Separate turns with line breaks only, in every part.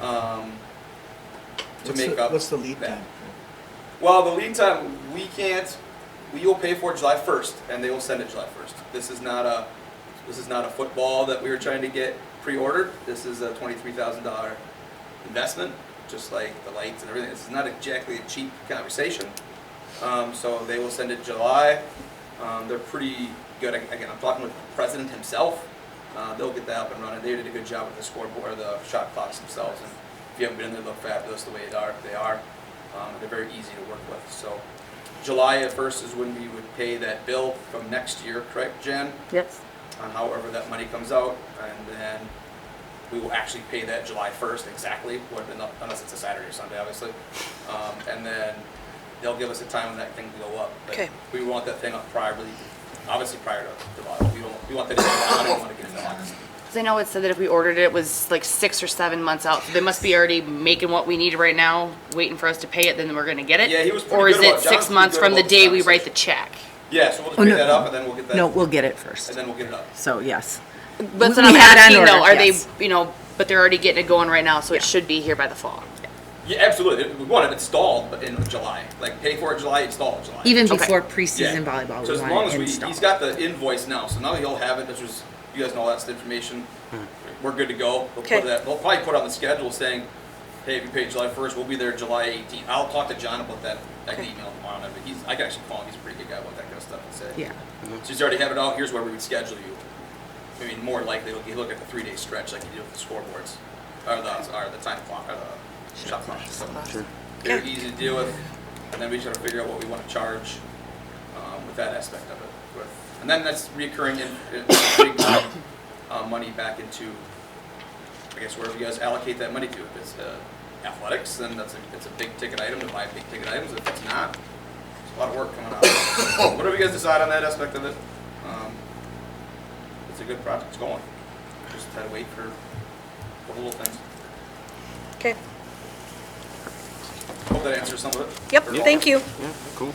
um, to
What's
make
the-
up.
What's the lead
that.
time?
Well, the lead time, we can't, we will pay for it July first, and they will send it July first. This is not a, this is not a football that we were trying to get pre-ordered. This is a twenty-three thousand dollar investment, just like the lights and everything. This is not exactly a cheap conversation. Um, so they will send it July. Um, they're pretty good. Again, I'm talking with the president himself. Uh, they'll get that up and running. They did a good job with the scoreboard, the shot clocks themselves. And if you haven't been in there, they look fabulous the way they are. They are. Um, they're very easy to work with. So July at first is when we would pay that bill from next year, correct, Jen?
Yes.
on however that money comes out, and then we will actually pay that July first exactly, or not- unless it's a Saturday or Sunday, obviously. Um, and then they'll give us a time when that thing will go up. But
Okay.
We want that thing up prior, really- obviously prior to July, we don't, we want that in July, we don't wanna get it in August.
Because I know it said that if we ordered it, it was like six or seven months out. So they must be already making what we need right now, waiting for us to pay it, then we're going to get it?
Yeah, he was pretty
Or is
good about-
it
John's
six
pretty
months
good
from the
about
day
this
we write the
conversation.
check?
Yeah, so we'll just
Oh,
pay
no,
that up, and then we'll get that,
No,
and
we'll get it first.
then we'll get it up.
So, yes.
But so
We
I'm
had on
asking though,
order,
are they,
yes.
you know, but they're already getting it going right now, so it should be here by the fall?
Yeah, absolutely, we want it installed but in July, like pay for it July, install it July.
Even
Okay.
before
Yeah.
preseason volleyball,
So
we
as long
want
as
it
we,
installed.
he's got the invoice now, so now he'll have it, which was, you guys know that's the information. We're good to go. We'll
Okay.
put that, they'll probably put on the schedule saying, hey, if you pay July first, we'll be there July eighteenth. I'll talk to John about that, I can email him on it, but he's, I can actually call him, he's a pretty good guy about that kind of stuff and say.
Yeah.
So he's already have it out, here's where we would schedule you. I mean, more likely, he'll, he'll look at the three-day stretch like you do with the scoreboards, or the, or the time clock, or the shot clock. So They're
Okay.
easy to deal with, and then we just gotta figure out what we wanna charge, um, with that aspect of it. with- And then that's reoccurring in, in big, uh, money back into, I guess, wherever you guys allocate that money to. If it's, uh, athletics, then that's a, it's a big ticket item, to buy big ticket items. If it's not, it's a lot of work coming out. So Whatever you guys decide on that aspect of it, um, it's a good project, it's going. Just had to wait for for the little things.
Okay.
Hope that answers some of it.
Yep,
Or all.
thank you.
Yeah, cool.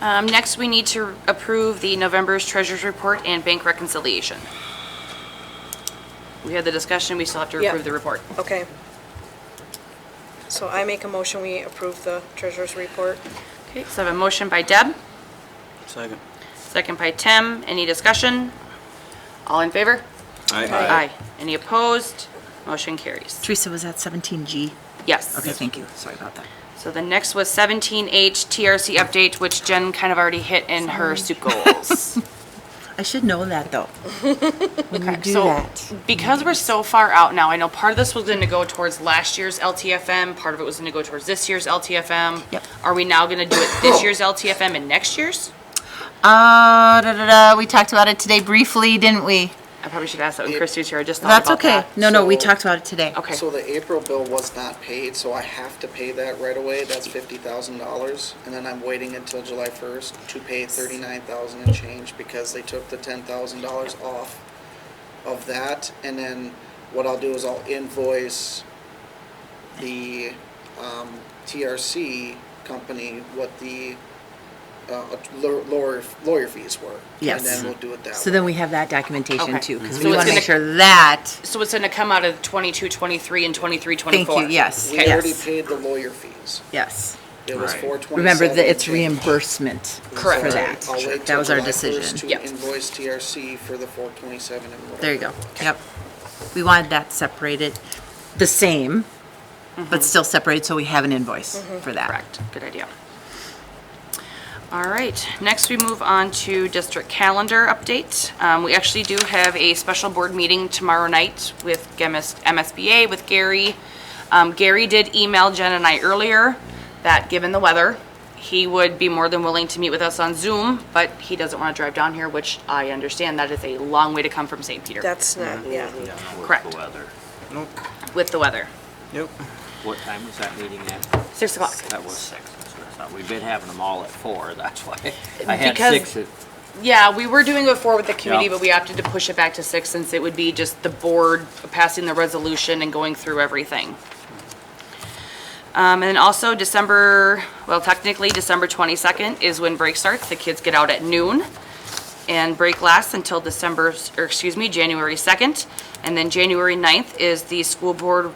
Um, next, we need to approve the November's treasurer's report and bank reconciliation. We had the discussion, we still have to
Yeah.
approve the report.
Okay. So I make a motion, we approve the treasurer's report.
Okay, so I have a motion by Deb,
Second.
second by Tim. Any discussion? All in favor?
Aye.
Any opposed? Motion carries.
Teresa, was that 17G?
Yes.
Okay, thank you. Sorry about that.
So the next was 17H TRC update, which Jen kind of already hit in her SUP goals.
I should know that, though. When you do
So,
that.
Because we're so far out now, I know part of this was gonna go towards last year's LTFM, part of it was gonna go towards this year's LTFM.
Yep.
Are we now gonna do it this year's LTFM and next year's?
Uh, da, da, da. We talked about it today briefly, didn't we?
Oh,
I probably should ask that when Christie's here, I just thought
That's
about
okay.
that.
No, no, we
So-
talked about it today.
Okay,
So the April bill was not paid, so I have to pay that right away. That's fifty thousand dollars. And then I'm waiting until July first to pay thirty-nine thousand and change because they took the ten thousand dollars off of that. And then what I'll do is I'll invoice the, um, TRC company what the, uh, lawyer, lawyer fees were.
Yes.
And then we'll do it that way.
So then we have that documentation,
Okay.
too, because
So
we
it's
want
gonna-
to make sure that,
so it's gonna come out of 22, 23, and 23,
thank
24?
you, yes,
We already
yes,
paid the lawyer fees.
yes.
It was
Right.
four twenty-seven.
Remember that it's reimbursement for
Correct.
that.
I'll wait
That
till
was our
July first
decision.
Yep.
To invoice TRC for the four twenty-seven and whatever.
There you go. Yep. We wanted that separated, the same, but still separated, so we have an invoice for that.
Correct, good idea. All right, next we move on to district calendar update. Um, We actually do have a special board meeting tomorrow night with GEMIS MSBA, with Gary. Um, Gary did email Jen and I earlier that, given the weather, he would be more than willing to meet with us on Zoom, but he doesn't want to drive down here, which I understand, that is a long way to come from St. Peter.
That's not, yeah.
Correct.
The weather.
With the weather.
Yep. What time was that meeting at?
Six o'clock.
That was six. that's what I thought. We've been having them all at four, that's why. I had
Because-
six at,
Yeah, we were doing it four with the committee,
Yeah.
but we opted to push it back to six since it would be just the board passing the resolution and going through everything. Um, and then also December, well, technically December twenty-second is when break starts. The kids get out at noon. And break lasts until December, or excuse me, January second. And then January 9th is the school board